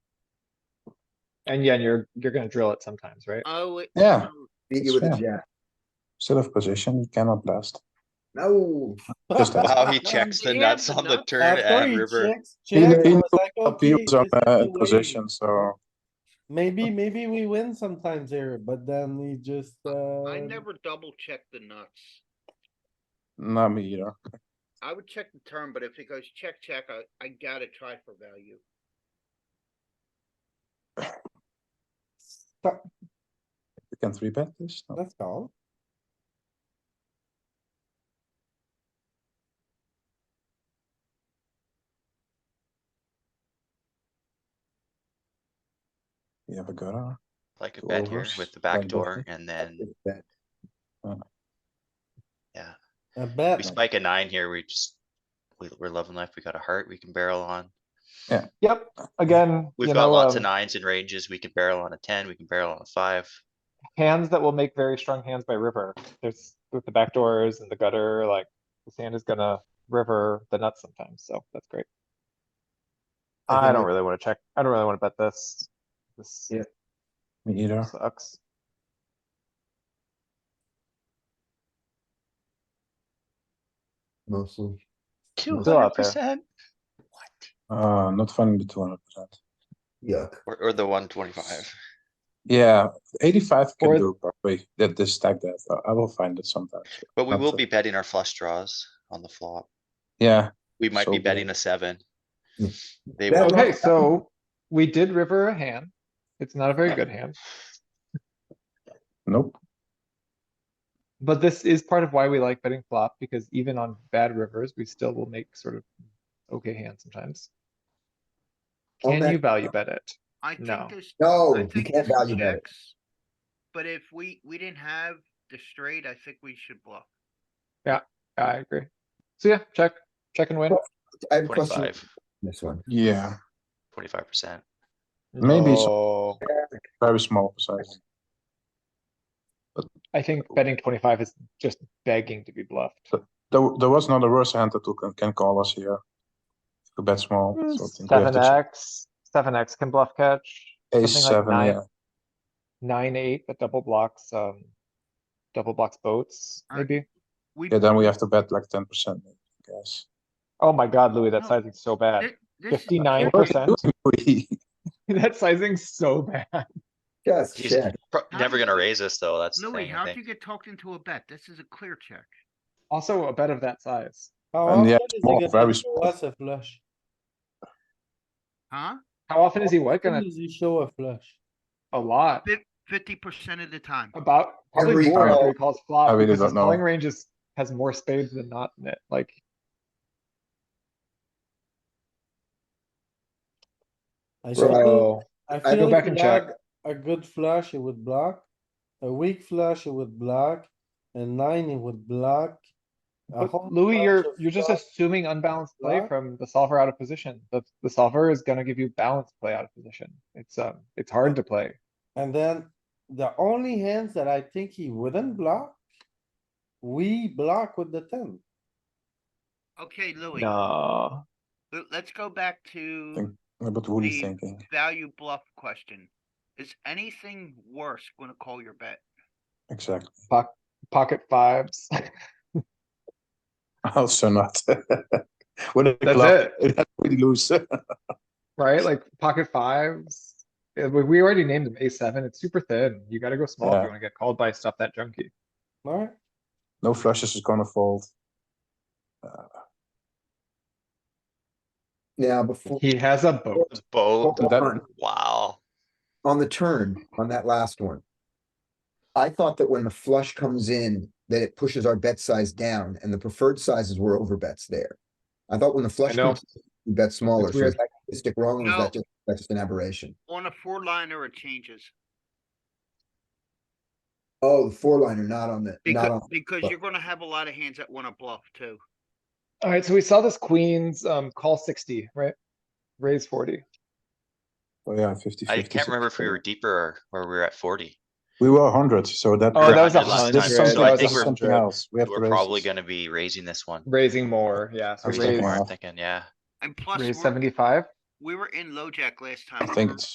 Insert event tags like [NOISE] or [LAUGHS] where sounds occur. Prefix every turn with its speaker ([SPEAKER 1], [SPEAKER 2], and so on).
[SPEAKER 1] And yeah, you're, you're gonna drill it sometimes, right?
[SPEAKER 2] Oh. it-
[SPEAKER 3] Yeah.
[SPEAKER 2] oh,
[SPEAKER 4] Beat you
[SPEAKER 3] It's
[SPEAKER 4] with a
[SPEAKER 3] fair.
[SPEAKER 4] jack.
[SPEAKER 3] Set of position, you cannot blast.
[SPEAKER 4] No,
[SPEAKER 3] Just that.
[SPEAKER 5] Wow, he checks the
[SPEAKER 2] Yeah,
[SPEAKER 5] nuts
[SPEAKER 2] the
[SPEAKER 5] on the
[SPEAKER 2] nuts.
[SPEAKER 5] turn
[SPEAKER 6] After
[SPEAKER 5] at
[SPEAKER 6] he
[SPEAKER 5] river.
[SPEAKER 6] checks,
[SPEAKER 3] He
[SPEAKER 6] checks,
[SPEAKER 3] he
[SPEAKER 6] I
[SPEAKER 3] knew
[SPEAKER 6] was like,
[SPEAKER 3] that
[SPEAKER 6] okay,
[SPEAKER 3] he was on
[SPEAKER 6] this is
[SPEAKER 3] a
[SPEAKER 6] the way.
[SPEAKER 3] uh, position, so
[SPEAKER 6] Maybe, maybe we win sometimes here, but then we just, uh.
[SPEAKER 1] Um,
[SPEAKER 2] I never double check the nuts.
[SPEAKER 3] no, me either.
[SPEAKER 2] I would check the turn, but if it goes check, check, I, I gotta try for value.
[SPEAKER 6] stop.
[SPEAKER 3] You can three bet this. No.
[SPEAKER 6] That's all.
[SPEAKER 3] You have a gutter.
[SPEAKER 5] Like a
[SPEAKER 3] Two
[SPEAKER 5] bet here
[SPEAKER 3] overs,
[SPEAKER 5] with the
[SPEAKER 3] one
[SPEAKER 5] back door
[SPEAKER 3] bluffing.
[SPEAKER 5] and then
[SPEAKER 4] it's that.
[SPEAKER 6] A
[SPEAKER 5] we
[SPEAKER 6] bet.
[SPEAKER 5] spike a nine here. We just, we, we're loving life. We got a heart we can barrel on.
[SPEAKER 1] Yep, again,
[SPEAKER 5] We've
[SPEAKER 1] you
[SPEAKER 5] got
[SPEAKER 1] know,
[SPEAKER 5] lots of
[SPEAKER 1] um,
[SPEAKER 5] nines and ranges. We can barrel on a ten, we can barrel on a five.
[SPEAKER 1] hands that will make very strong hands by river. There's, with the back doors and the gutter, like, the sand is gonna river the nuts sometimes, so that's great.
[SPEAKER 3] I
[SPEAKER 1] I
[SPEAKER 3] think
[SPEAKER 1] don't
[SPEAKER 3] it-
[SPEAKER 1] really wanna check, I don't really wanna bet this. This
[SPEAKER 4] Yeah.
[SPEAKER 3] Me either.
[SPEAKER 1] sucks.
[SPEAKER 4] Mostly.
[SPEAKER 5] Two
[SPEAKER 1] Still
[SPEAKER 5] hundred
[SPEAKER 1] out there.
[SPEAKER 5] percent?
[SPEAKER 3] Uh, not finding the two hundred percent.
[SPEAKER 4] Yuck.
[SPEAKER 5] Or, or the one twenty-five.
[SPEAKER 3] Yeah, eighty-five can
[SPEAKER 1] Or-
[SPEAKER 3] do probably. That this stack that I- I will find it sometimes.
[SPEAKER 5] But we
[SPEAKER 3] That's
[SPEAKER 5] will
[SPEAKER 3] it.
[SPEAKER 5] be betting our flush draws on the flop.
[SPEAKER 3] Yeah,
[SPEAKER 5] We might
[SPEAKER 3] So
[SPEAKER 5] be
[SPEAKER 3] good.
[SPEAKER 5] betting a seven.
[SPEAKER 4] Hmm.
[SPEAKER 5] They
[SPEAKER 4] That
[SPEAKER 5] will,
[SPEAKER 4] one-
[SPEAKER 1] Okay, so we did river a hand. It's not a very good hand,
[SPEAKER 3] nope.
[SPEAKER 1] but this is part of why we like betting flop, because even on bad rivers, we still will make sort of okay hands sometimes.
[SPEAKER 4] On
[SPEAKER 1] Can
[SPEAKER 4] that-
[SPEAKER 1] you value bet it?
[SPEAKER 2] I think
[SPEAKER 1] No.
[SPEAKER 2] there's.
[SPEAKER 4] No,
[SPEAKER 2] I
[SPEAKER 4] you
[SPEAKER 2] think there's
[SPEAKER 4] can't value bet it.
[SPEAKER 2] checks, But if we, we didn't have the straight, I think we should bluff.
[SPEAKER 1] I agree. So yeah, check, check and win.
[SPEAKER 4] I have a question on
[SPEAKER 5] twenty-five,
[SPEAKER 4] this one.
[SPEAKER 3] Yeah,
[SPEAKER 5] twenty-five percent.
[SPEAKER 3] Maybe so.
[SPEAKER 5] Oh.
[SPEAKER 1] No,
[SPEAKER 3] very small size.
[SPEAKER 1] I think betting twenty-five is just begging to be bluffed.
[SPEAKER 3] There, there was not a worse hand that can, can call us here. To bet small. so I think we have
[SPEAKER 1] Hmm, Seven
[SPEAKER 3] to check.
[SPEAKER 1] X, seven X can bluff catch.
[SPEAKER 3] Ace
[SPEAKER 1] something like
[SPEAKER 3] seven,
[SPEAKER 1] nine.
[SPEAKER 3] yeah.
[SPEAKER 1] nine, eight, that double blocks, um, double blocks boats,
[SPEAKER 2] Alright.
[SPEAKER 1] maybe.
[SPEAKER 2] We,
[SPEAKER 3] Yeah, then we have to bet like ten percent, I guess. [LAUGHS]
[SPEAKER 1] Oh my god, Louis, that
[SPEAKER 2] No.
[SPEAKER 1] sizing's so bad.
[SPEAKER 2] thi- this, is-
[SPEAKER 1] Fifty-nine
[SPEAKER 3] What are
[SPEAKER 1] percent,
[SPEAKER 3] you doing, Louis?
[SPEAKER 1] [LAUGHS] that sizing's so bad.
[SPEAKER 4] Just
[SPEAKER 5] He's
[SPEAKER 4] check.
[SPEAKER 5] pro-
[SPEAKER 2] How
[SPEAKER 5] never
[SPEAKER 2] did
[SPEAKER 5] gonna
[SPEAKER 2] you-
[SPEAKER 5] raise us though, that's the
[SPEAKER 2] Louis,
[SPEAKER 5] thing, I
[SPEAKER 2] how'd
[SPEAKER 5] think.
[SPEAKER 2] you get talked into a bet? This is a clear check.
[SPEAKER 1] Also, a bet of that size.
[SPEAKER 6] How
[SPEAKER 3] And yeah,
[SPEAKER 6] often is he
[SPEAKER 3] small,
[SPEAKER 6] gonna
[SPEAKER 3] very
[SPEAKER 6] show
[SPEAKER 3] small.
[SPEAKER 6] us a flush?
[SPEAKER 2] Huh?
[SPEAKER 1] How often is he what
[SPEAKER 6] When
[SPEAKER 1] gonna,
[SPEAKER 6] does he show a flush?
[SPEAKER 1] a lot,
[SPEAKER 2] Fifty percent of the time.
[SPEAKER 1] about, probably
[SPEAKER 4] Every
[SPEAKER 1] more after he
[SPEAKER 4] call.
[SPEAKER 1] calls
[SPEAKER 3] I
[SPEAKER 1] flop,
[SPEAKER 3] really
[SPEAKER 1] because
[SPEAKER 3] don't
[SPEAKER 1] his calling
[SPEAKER 3] know.
[SPEAKER 1] range is, has more spades than not in it, like.
[SPEAKER 6] I feel-
[SPEAKER 1] Bro, I go
[SPEAKER 6] feel
[SPEAKER 1] back
[SPEAKER 6] he
[SPEAKER 1] and check.
[SPEAKER 6] had A good flush, it would block. A weak flush, it would block. A nine, it would block. a
[SPEAKER 1] but
[SPEAKER 6] whole
[SPEAKER 1] Louis,
[SPEAKER 6] bunch
[SPEAKER 1] you're,
[SPEAKER 6] of
[SPEAKER 1] you're just
[SPEAKER 6] flush.
[SPEAKER 1] assuming unbalanced play
[SPEAKER 6] Block.
[SPEAKER 1] from the solver out of position. The, the solver is gonna give you balanced play out of position. It's, um, it's hard to play.
[SPEAKER 6] And then the only hands that I think he wouldn't block, we block with the ten.
[SPEAKER 2] Okay, Louis,
[SPEAKER 1] No,
[SPEAKER 2] l- let's go back to
[SPEAKER 3] Think- But what are you
[SPEAKER 2] The-
[SPEAKER 3] thinking?
[SPEAKER 2] value bluff question. Is anything worse gonna call your bet?
[SPEAKER 3] Exactly. [LAUGHS]
[SPEAKER 1] pocket fives. [LAUGHS]
[SPEAKER 3] Also not. [LAUGHS] What a
[SPEAKER 1] That's
[SPEAKER 3] club.
[SPEAKER 1] it.
[SPEAKER 3] It has pretty loose. [LAUGHS]
[SPEAKER 1] Right, like pocket fives. Yeah, We we already named them A seven. It's super thin. You gotta go small if
[SPEAKER 3] Yeah.
[SPEAKER 1] you wanna get called by stuff that junky.
[SPEAKER 6] Alright,
[SPEAKER 3] No flushes is gonna fold. Uh,
[SPEAKER 4] Now, before,
[SPEAKER 1] He has a boat.
[SPEAKER 5] Boat,
[SPEAKER 3] Well, that-
[SPEAKER 5] wow.
[SPEAKER 4] on the turn, on that last one. I thought that when the flush comes in, that it pushes our bet size down and the preferred sizes were over bets there. I thought when the flush
[SPEAKER 1] know.
[SPEAKER 4] comes, in, we bet smaller.
[SPEAKER 1] It's
[SPEAKER 4] So
[SPEAKER 1] weird.
[SPEAKER 4] is that stick wrong or is
[SPEAKER 2] No.
[SPEAKER 4] that just, that's just an aberration?
[SPEAKER 2] On a four liner, it changes.
[SPEAKER 4] Oh, the four liner, not on the, not on,
[SPEAKER 2] Because, because
[SPEAKER 4] but-
[SPEAKER 2] you're gonna have a lot of hands that wanna bluff too.
[SPEAKER 1] Alright, so we saw this queens, um, call sixty, right? Raise forty.
[SPEAKER 3] Oh yeah, fifty.
[SPEAKER 5] I
[SPEAKER 3] 50,
[SPEAKER 5] can't remember if we
[SPEAKER 3] 60.
[SPEAKER 5] were deeper or, or we were at forty.
[SPEAKER 3] We were hundred, so that.
[SPEAKER 1] Oh, that was a
[SPEAKER 5] Hundred last
[SPEAKER 1] hundred.
[SPEAKER 3] That's
[SPEAKER 5] time, so
[SPEAKER 1] that
[SPEAKER 3] something,
[SPEAKER 5] I
[SPEAKER 1] was
[SPEAKER 5] think
[SPEAKER 3] that's
[SPEAKER 5] we're-
[SPEAKER 1] 100.
[SPEAKER 3] something else. We have to
[SPEAKER 5] We're probably
[SPEAKER 3] raise. this.
[SPEAKER 5] gonna be raising this one.
[SPEAKER 1] Raising more, yeah, so
[SPEAKER 3] I was thinking
[SPEAKER 1] raise,
[SPEAKER 3] more.
[SPEAKER 5] Thinking, yeah.
[SPEAKER 2] And plus,
[SPEAKER 1] raise
[SPEAKER 2] we're-
[SPEAKER 1] seventy-five.
[SPEAKER 2] we were in LoJack last time.
[SPEAKER 3] I think
[SPEAKER 2] remember?
[SPEAKER 3] it's